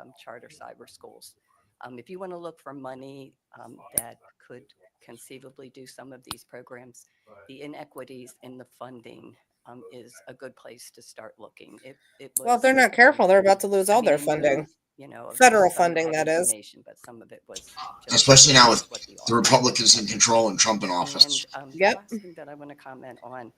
um, charter cyber schools. Um, If you want to look for money um, that could conceivably do some of these programs, the inequities in the funding um, is a good place to start looking. It- it Well, if they're was- not careful, they're about to lose I all mean, their I know funding. it's, You know. some Federal of funding, our that is. information, But some of it was. just Especially now with what the The Republicans in control and Trump in office. And, um, the Yep. last thing That I want to comment on.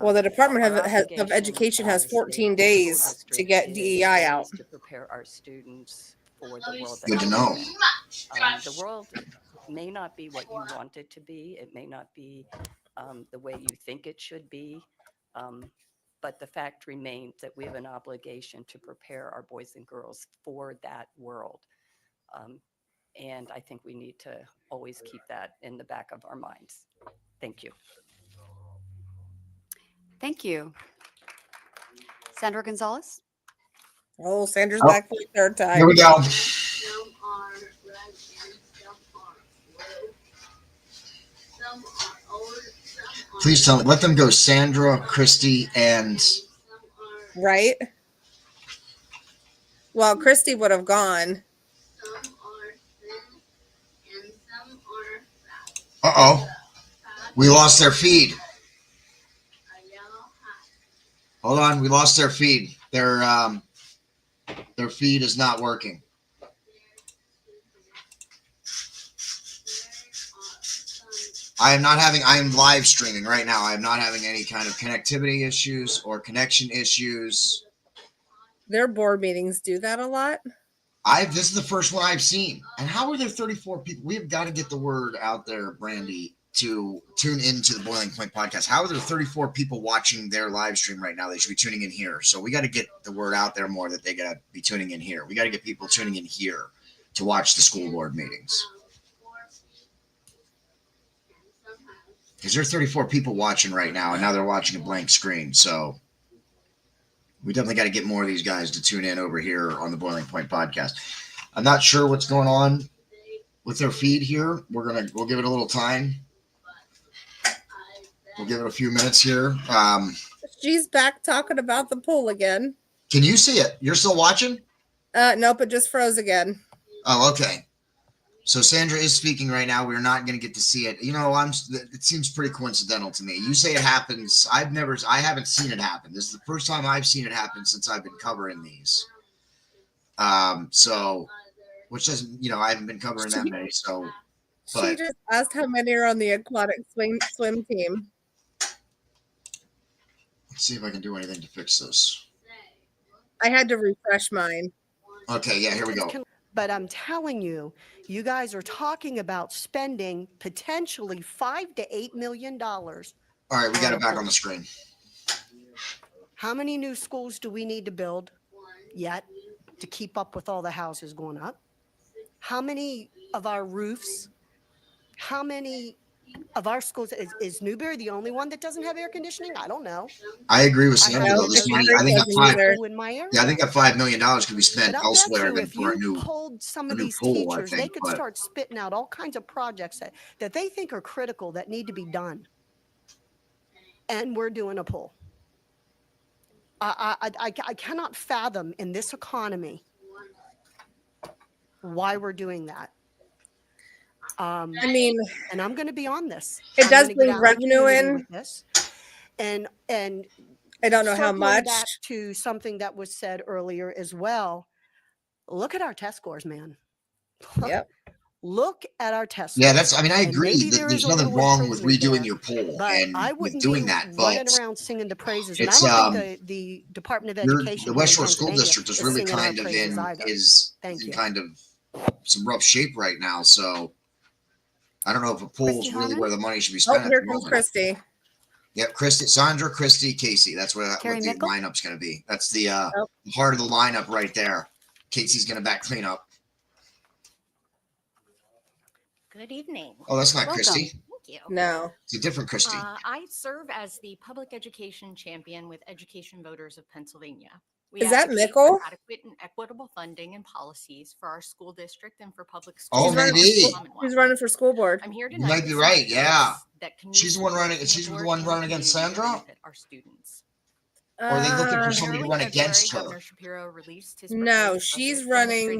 Well, the um, Department our of- has- of obligation Education has as a state 14 school days to district get is- DEI out. is To prepare our students for the world. that Good to we know. live in. Um, The world may not be what you want it to be. It may not be um, the way you think it should be. um, But the fact remains that we have an obligation to prepare our boys and girls for that world. Um, And I think we need to always keep that in the back of our minds. Thank you. Thank you. Sandra Gonzalez? Oh, Sanders Oh. back for the third Here time. we go. Some are red and some are blue. Some are orange, some are. Please tell me. Let them go. Sandra, Christie, and Some are, Right? Well, Christy would have gone. some are thin and some are fat. uh oh, Fat we lost their feed. are yellow hot. Hold on, we lost their feed. Their um, their feed is not working. I am not having. I am live streaming right now. I am not having any kind of connectivity issues or connection issues. Their board meetings do that a lot. I this is the first one I've seen. And how are there 34 people? We have got to get the word out there, Brandy, to tune into the Boiling Point podcast. How are there 34 people watching their live stream right now? They should be tuning in here. So we got to get the word out there more that they got to be tuning in here. We got to get people tuning in here to watch the school board meetings because there are 34 people watching right now, and now they're watching a blank screen. So we definitely got to get more of these guys to tune in over here on the Boiling Point podcast. I'm not sure what's going on with their feed here. We're gonna we'll give it a little time. We'll give it a few minutes here. Um, She's back talking about the pool again. can you see it? You're still watching? Uh, nope, it just froze again. Oh, okay. So Sandra is speaking right now. We're not going to get to see it. You know, I'm. It seems pretty coincidental to me. You say it happens. I've never. I haven't seen it happen. This is the first time I've seen it happen since I've been covering these. Um. So, which doesn't. You know, I haven't been covering that many. So she But- just asked how many are on the aquatic swing swim team. let's see if I can do anything to fix this. I had to refresh mine. Okay. Yeah. Here we go. But I'm telling you, you guys are talking about spending potentially five to eight million dollars. All right. We got it back on the screen. How many new schools do we need to build yet to keep up with all the houses going up? How many of our roofs? How many of our schools is, is Newberry the only one that doesn't have air conditioning? I don't know. I agree with Sandra. Though. This money. I think that five. School in my area. Yeah. I think that five million dollars could be spent But I'll bet elsewhere you than if for a you new. polled some a of new these pool, I teachers, they think, could but- start spitting out all kinds of projects that, that they think are critical that need to be done. And we're doing a poll. I, I, I, I cannot fathom in this economy why we're doing that. Um, I mean, and I'm going to be on this. It I'm does gonna get bring out in the revenue community in. with this. And, and I don't know how circling much. back to something that was said earlier as well. Look at our test scores, man. Yep. Look at our test. Yeah, scores. that's. I mean, I And agree maybe that there there's is a nothing little wrong with improvement redoing there, your poll But and I with wouldn't doing be that, but running around singing the praises. And I it's, don't um, think the, the Department of your- Education, the here West in Shore School Pennsylvania District is really singing our kind of praises in either. is Thank in you. kind of some rough shape right now. So I don't know if a poll is Christy really Harmon? where the money should be Oh, spent. at here the comes moment. Christy. Yep, Christy, Sandra, Christy, Casey. That's where that, Carrie what the Mickle? lineup's going to be. That's the uh, Oh. heart of the lineup right there. Casey's going to back clean up. Good evening. Oh, that's not Welcome. Christy. Thank you. No. It's a different Christy. Uh, I serve as the public education champion with Education Voters of Pennsylvania. We Is that advocate for Mickle? Adequate and equitable funding and policies for our school district and for public Oh, schools. across the maybe. Commonwealth. She's running for school board. I'm here You tonight. might be to right, support yeah. efforts that can She's the use one running- financial she's the support one and running against community to Sandra? benefit Our students. Or are they looking for Uh, somebody to Early run February, against her? Governor Shapiro released his No, proposed budget she's demonstrating running